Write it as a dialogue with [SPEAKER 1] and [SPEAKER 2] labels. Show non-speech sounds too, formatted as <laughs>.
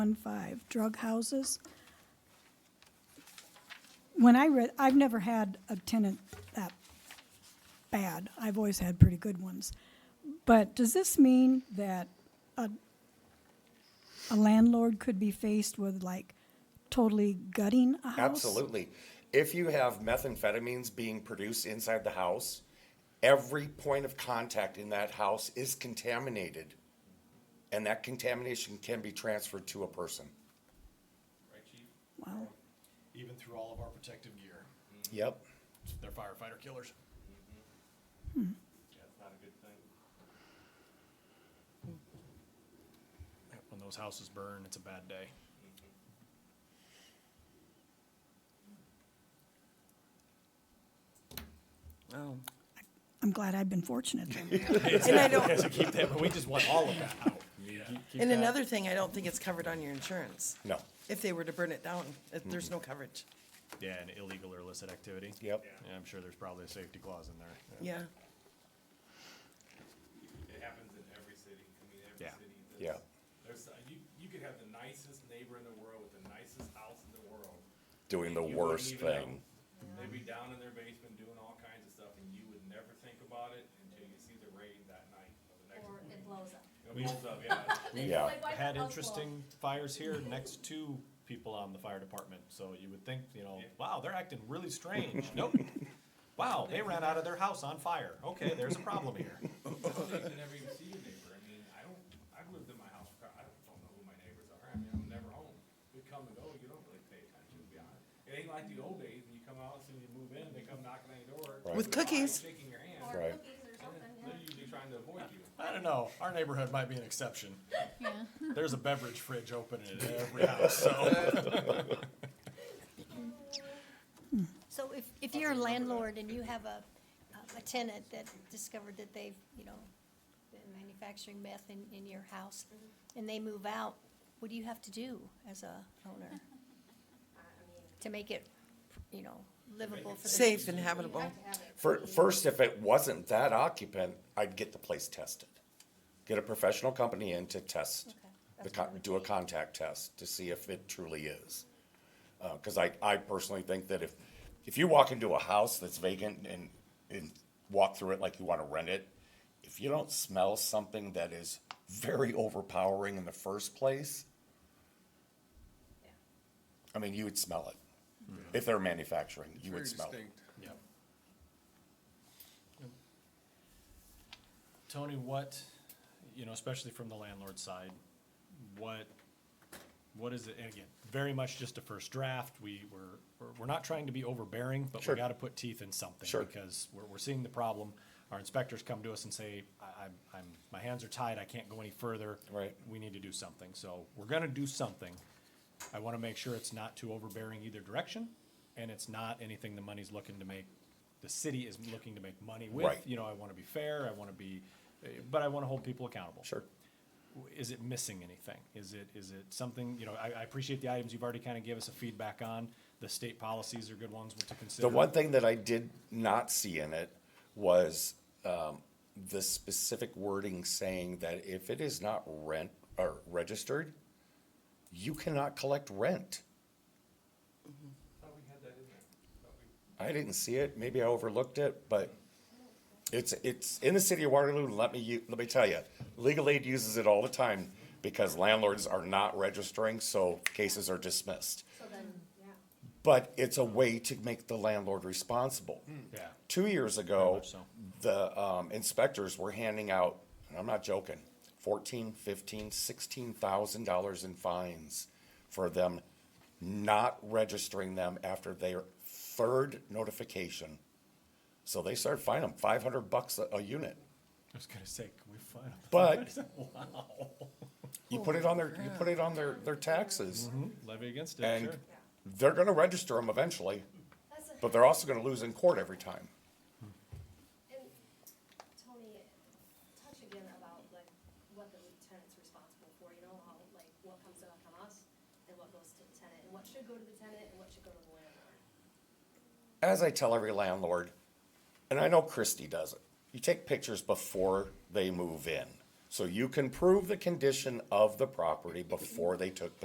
[SPEAKER 1] One five, drug houses. When I read, I've never had a tenant that bad. I've always had pretty good ones. But does this mean that a, a landlord could be faced with like totally gutting a house?
[SPEAKER 2] Absolutely. If you have methamphetamines being produced inside the house, every point of contact in that house is contaminated. And that contamination can be transferred to a person.
[SPEAKER 3] right, chief?
[SPEAKER 1] Wow.
[SPEAKER 3] Even through all of our protective gear,
[SPEAKER 2] Yep.
[SPEAKER 3] they're firefighter killers. Yeah, it's not a good thing. When those houses burn, it's a bad day.
[SPEAKER 1] I'm glad I've been fortunate then.
[SPEAKER 4] <laughs> And
[SPEAKER 3] <laughs>
[SPEAKER 4] I don't,
[SPEAKER 3] So keep that, but we just want all of that out.
[SPEAKER 4] and another thing, I don't think it's covered on your insurance.
[SPEAKER 2] No.
[SPEAKER 4] If they were to burn it down, if there's no coverage,
[SPEAKER 3] Yeah, an illegal or illicit activity.
[SPEAKER 2] Yep.
[SPEAKER 3] Yeah, I'm sure there's probably a safety clause in there.
[SPEAKER 4] yeah.
[SPEAKER 5] It happens in every city. I mean, every
[SPEAKER 3] Yeah.
[SPEAKER 5] city. does.
[SPEAKER 2] Yeah.
[SPEAKER 5] There's uh, you. You could have the nicest neighbor in the world with the nicest house in the world.
[SPEAKER 2] Doing the
[SPEAKER 5] You wouldn't
[SPEAKER 2] worst
[SPEAKER 5] even know.
[SPEAKER 2] thing.
[SPEAKER 5] They'd be down in their basement doing all kinds of stuff, and you would never think about it until you see the rain that night or the next
[SPEAKER 6] or
[SPEAKER 5] morning.
[SPEAKER 6] it blows up.
[SPEAKER 5] It blows up.
[SPEAKER 2] <laughs> Yeah.
[SPEAKER 5] Yeah.
[SPEAKER 6] Like, why
[SPEAKER 3] Had
[SPEAKER 6] not us blow?
[SPEAKER 3] interesting fires here next to people on the fire department, so you would think, you know, wow, they're acting really strange. Nope. Wow, they ran out of their house on fire. Okay, there's a problem here.
[SPEAKER 5] you never even see your neighbor. I mean, I don't. I've lived in my house for. I don't, don't know who my neighbors are. I mean, I'm never home. We come and go. You don't really pay attention. To be honest, it ain't like the old days when you come out as soon as you move in, they come knocking on your door
[SPEAKER 2] Right.
[SPEAKER 4] With
[SPEAKER 5] They're
[SPEAKER 4] cookies.
[SPEAKER 5] shaking your hand.
[SPEAKER 6] Or
[SPEAKER 2] Right.
[SPEAKER 6] cookies or something, yeah.
[SPEAKER 5] They're usually trying to avoid you.
[SPEAKER 3] I don't know. Our neighborhood might be an exception. There's a beverage fridge open at every house, so.
[SPEAKER 7] So if, if you're a landlord and you have a, a tenant that discovered that they've, you know, been manufacturing meth in, in your house,
[SPEAKER 6] Mm-hmm.
[SPEAKER 7] and they move out, what do you have to do as a
[SPEAKER 6] <laughs>
[SPEAKER 7] owner? To make it, you know, livable for the.
[SPEAKER 4] Safe and habitable.
[SPEAKER 2] Fir- First, if it wasn't that occupant, I'd get the place tested. Get a professional company in to test,
[SPEAKER 7] Okay,
[SPEAKER 2] the
[SPEAKER 7] that's
[SPEAKER 2] con-
[SPEAKER 7] what I would
[SPEAKER 2] do a contact test to see if it truly is. Because I, I personally think that if, if you walk into a house that's vacant and, and walk through it like you want to rent it, if you don't smell something that is very overpowering in the first place, I mean, you would smell it. If they're manufacturing, you would smell it.
[SPEAKER 3] Yep. Tony, what, you know, especially from the landlord side, what, what is it, and again, very much just a first draft, we were, we're- we're not trying to be overbearing, but we
[SPEAKER 2] Sure.
[SPEAKER 3] gotta put teeth in something.
[SPEAKER 2] Sure.
[SPEAKER 3] Because we're, we're seeing the problem, our inspectors come to us and say, I, I'm, I'm, my hands are tied, I can't go any further.
[SPEAKER 2] Right.
[SPEAKER 3] We need to do something, so we're gonna do something. I wanna make sure it's not too overbearing either direction, and it's not anything the money's looking to make, the city is looking to make money with.
[SPEAKER 2] Right.
[SPEAKER 3] You know, I wanna be fair, I wanna be, eh, but I wanna hold people accountable
[SPEAKER 2] Sure.
[SPEAKER 3] is it missing anything? Is it, is it something, you know, I, I appreciate the items you've already kind of gave us a feedback on. The state policies are good ones to consider.
[SPEAKER 2] The one thing that I did not see in it was um, the specific wording saying that if it is not rent or registered, you cannot collect rent.
[SPEAKER 5] Thought we had that in there. Thought we-
[SPEAKER 2] I didn't see it. Maybe I overlooked it, but it's it's in the city of Waterloo. and Let me u- let me tell you, legal aid uses it all the time because landlords are not registering, so cases are dismissed.
[SPEAKER 6] So then, yeah.
[SPEAKER 2] But it's a way to make the landlord responsible.
[SPEAKER 3] Yeah.
[SPEAKER 2] two years ago,
[SPEAKER 3] much so.
[SPEAKER 2] the um, inspectors were handing out, and I'm not joking, fourteen, fifteen, sixteen thousand dollars in fines for them not registering them after their third notification. So they started fining them five hundred bucks a, a unit.
[SPEAKER 3] I was gonna say, can we find out? <laughs>
[SPEAKER 2] But you put it on their, you put it on their, their taxes,
[SPEAKER 3] Levy against it,
[SPEAKER 2] and
[SPEAKER 3] sure.
[SPEAKER 2] they're gonna register them eventually,
[SPEAKER 6] That's a-
[SPEAKER 2] but they're also gonna lose in court every time.
[SPEAKER 6] And Tony, touch again about like what the tenant's responsible for, you know, how, like, what comes up on us and what goes to the tenant, and what should go to the tenant and what should go to the landlord.
[SPEAKER 2] as I tell every landlord, and I know Christie does it, you take pictures before they move in. So you can prove the condition of the property before they took